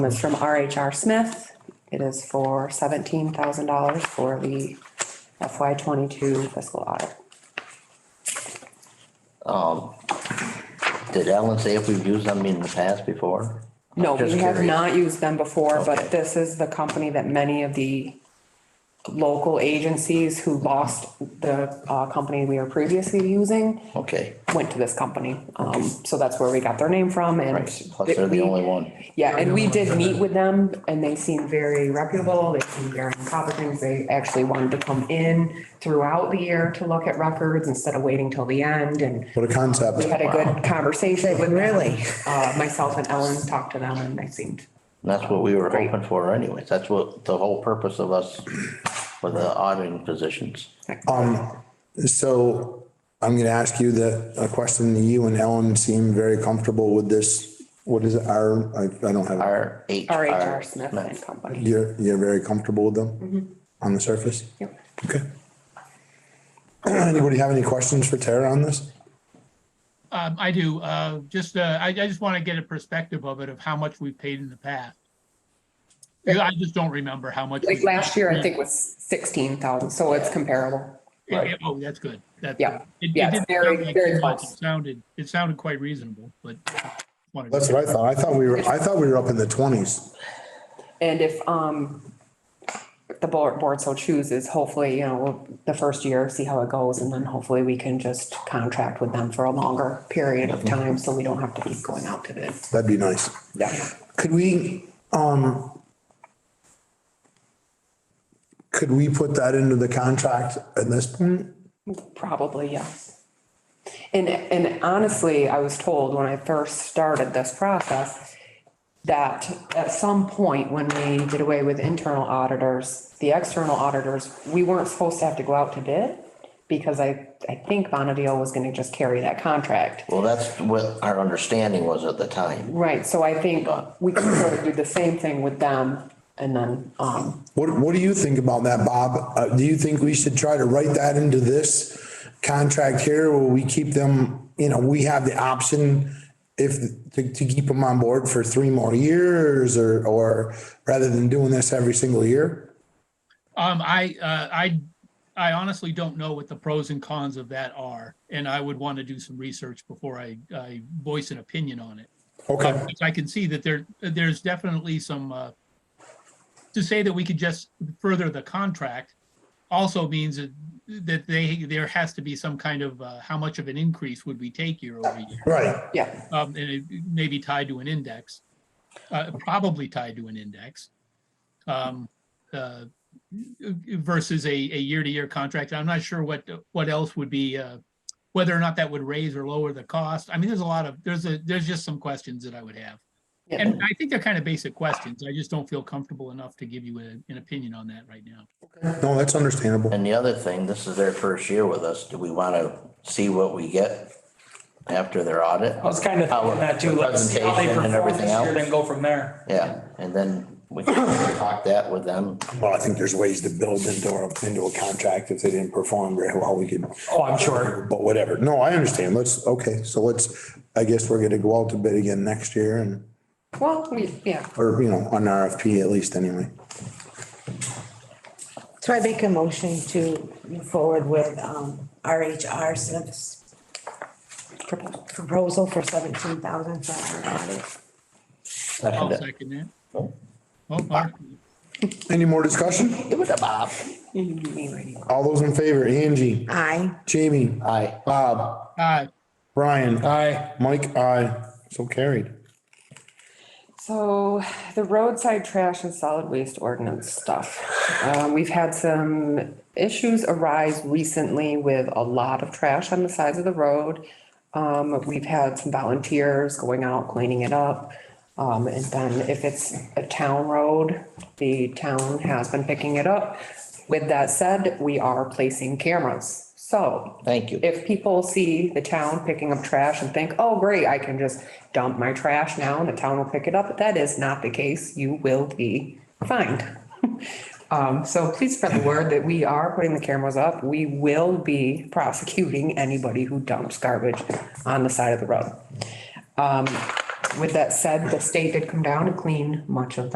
It's from RHR Smith. It is for seventeen thousand dollars for the FY twenty-two fiscal audit. Did Ellen say if we've used them in the past before? No, Just we have curious. not used them before, Okay. but this is the company that many of the local agencies who lost the uh, company we were previously using Okay, went to this company. Um, So that's where we got their name from and. right, plus they're the we- only one. Yeah, and we did meet with them and they seemed very reputable. They seemed very on top of things. They actually wanted to come in throughout the year to look at records instead of waiting till the end and What a concept. we had a good conversation with them. Really? Uh, myself and Ellen talked to them and they seemed, And That's what we were hoping for anyways. That's what the whole purpose of us for the auditing positions. So I'm going to ask you that, a question that you and Ellen seem very comfortable with this. What is our, I, I don't have, R H R. RHR Smith and Company. you're, you're very comfortable with them on the surface? Mm-hmm. Yep. Okay. Anybody have any questions for Tara on this? Um, I do, uh, just, uh, I, I just want to get a perspective of it of how much we've paid in the past. Yeah, I just don't remember how much. Like we- last year, I think was sixteen thousand, so it's comparable. Yeah, yeah, Oh, that's good. That's Yeah. good. It- it Yeah, it's didn't very- sound like very too much. close. It Sounded, it sounded quite reasonable, but. wanted to- That's what I thought. I thought we were, I thought we were up in the twenties. And if, um, if the board, board so chooses, hopefully, you know, the first year, see how it goes, and then hopefully we can just contract with them for a longer period of time, so we don't have to keep going out to bid. That'd be nice. Yeah. Could we, um, could we put that into the contract at this point? Probably, yes. And, and honestly, I was told when I first started this process that at some point when we did away with internal auditors, the external auditors, we weren't supposed to have to go out to bid because I, I think Bonadil was gonna just carry that contract. Well, that's what our understanding was at the time. Right, so I think we can sort of do the same thing with them and then, um, What, what do you think about that, Bob? Uh, do you think we should try to write that into this contract here where we keep them, you know, we have the option if, to, to keep them on board for three more years or, or rather than doing this every single year? Um, I, uh, I, I honestly don't know what the pros and cons of that are, and I would want to do some research before I, I voice an opinion on it. Okay, Because Uh, I can see that there, there's definitely some, uh, to say that we could just further the contract also means that that they, there has to be some kind of, uh, how much of an increase would we take year over year? right. yeah, Um, and it may be tied to an index, uh, probably tied to an index. Um, uh, versus a, a year-to-year contract. I'm not sure what, what else would be, uh, whether or not that would raise or lower the cost. I mean, there's a lot of, there's a, there's just some questions that I would have. yeah. And I think they're kind of basic questions. I just don't feel comfortable enough to give you a- an opinion on that right now. No, that's understandable. And the other thing, this is their first year with us. Do we want to see what we get after their audit? I was kind of Our thinking that too, let's see how they presentation and perform everything this year, else. then go from there. Yeah, and then we can talk that with them. Well, I think there's ways to build into our, into a contract if they didn't perform very well, we could. Oh, I'm sure. But whatever. No, I understand. Let's, okay, so let's, I guess we're gonna go out to bid again next year and, Well, we, yeah, or, you know, on RFP at least anyway. So I make a motion to move forward with um, RHR Smith's propo- proposal for seventeen thousand for our audit. I'll Second it. second that. Oh, Mark, Any more discussion? Give it a bob. All those in favor, Angie, Aye. Jamie, Aye. Bob, aye. Brian, Aye. Mike, I, so carried. So the roadside trash and solid waste ordinance stuff. Um, we've had some issues arise recently with a lot of trash on the sides of the road. Um, we've had some volunteers going out cleaning it up. Um, and then if it's a town road, the town has been picking it up. With that said, we are placing cameras. So Thank you. if people see the town picking up trash and think, oh, great, I can just dump my trash now and the town will pick it up, that is not the case. You will be fined. Um, so please spread the word that we are putting the cameras up. We will be prosecuting anybody who dumps garbage on the side of the road. Um, With that said, the state did come down and clean much of